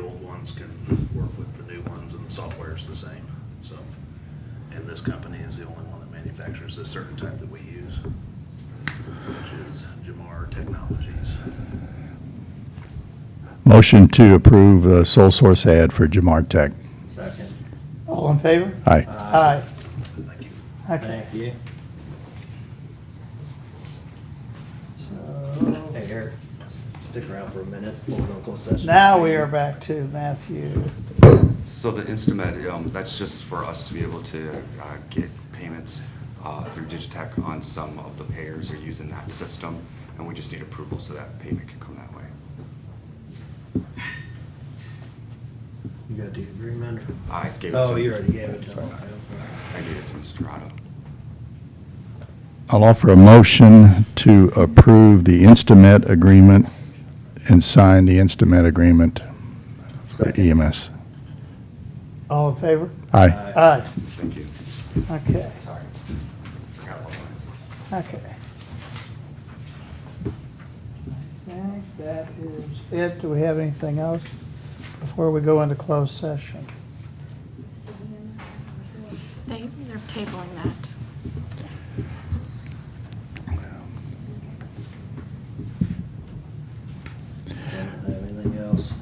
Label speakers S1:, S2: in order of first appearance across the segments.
S1: ones can work with the new ones and the software's the same, so. And this company is the only one that manufactures a certain type that we use, which is Jamar Technologies.
S2: Motion to approve the sole source ad for Jamar Tech.
S3: Second.
S4: All in favor?
S2: Aye.
S4: Aye.
S1: Thank you.
S4: Okay.
S3: Thank you.
S4: So
S3: Hey, Eric, stick around for a minute. We'll go to closed session.
S4: now we are back to Matthew.
S5: So the Instamet, um, that's just for us to be able to, uh, get payments, uh, through Digitech on some of the payers are using that system, and we just need approval so that payment can come that way.
S3: You got the agreement?
S5: I gave it to.
S3: Oh, you already gave it to him.
S5: I gave it to Mr. Otto.
S2: I'll offer a motion to approve the Instamet agreement and sign the Instamet agreement for EMS.
S4: All in favor?
S2: Aye.
S3: Aye.
S4: Aye.
S5: Thank you.
S4: Okay,
S5: Sorry. Forgot about that.
S4: okay. I think that is it. Do we have anything else before we go into closed session?
S6: They, they're tabling that.
S3: Don't have Anything else?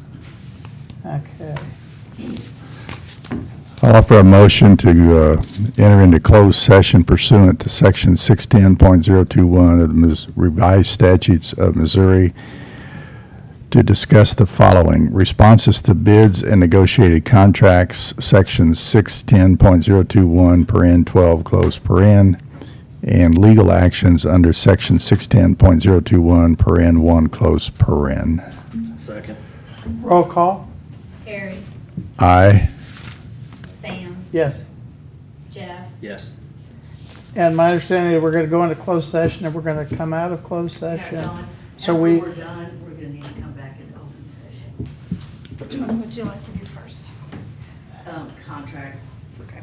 S4: Okay.
S2: I'll offer a motion to uh, enter into closed session pursuant to Section 610.021 of the Mis- revised statutes of Missouri to discuss the following: responses to bids and negotiated contracts, Section 610.021, paren 12, close paren, and legal actions under Section 610.021, paren 1, close paren.
S3: Second.
S4: Roll call?
S7: Harry,
S2: Aye.
S7: Sam,
S4: Yes.
S7: Jeff,
S3: Yes.
S4: And my understanding is we're gonna go into closed session and we're gonna come out of closed
S8: Yeah,
S4: session.
S8: Dawn,
S4: So
S8: After
S4: we-
S8: we're done, we're gonna need to come back in open session.
S6: Which one would you like to do first?
S8: Um, contract. Okay.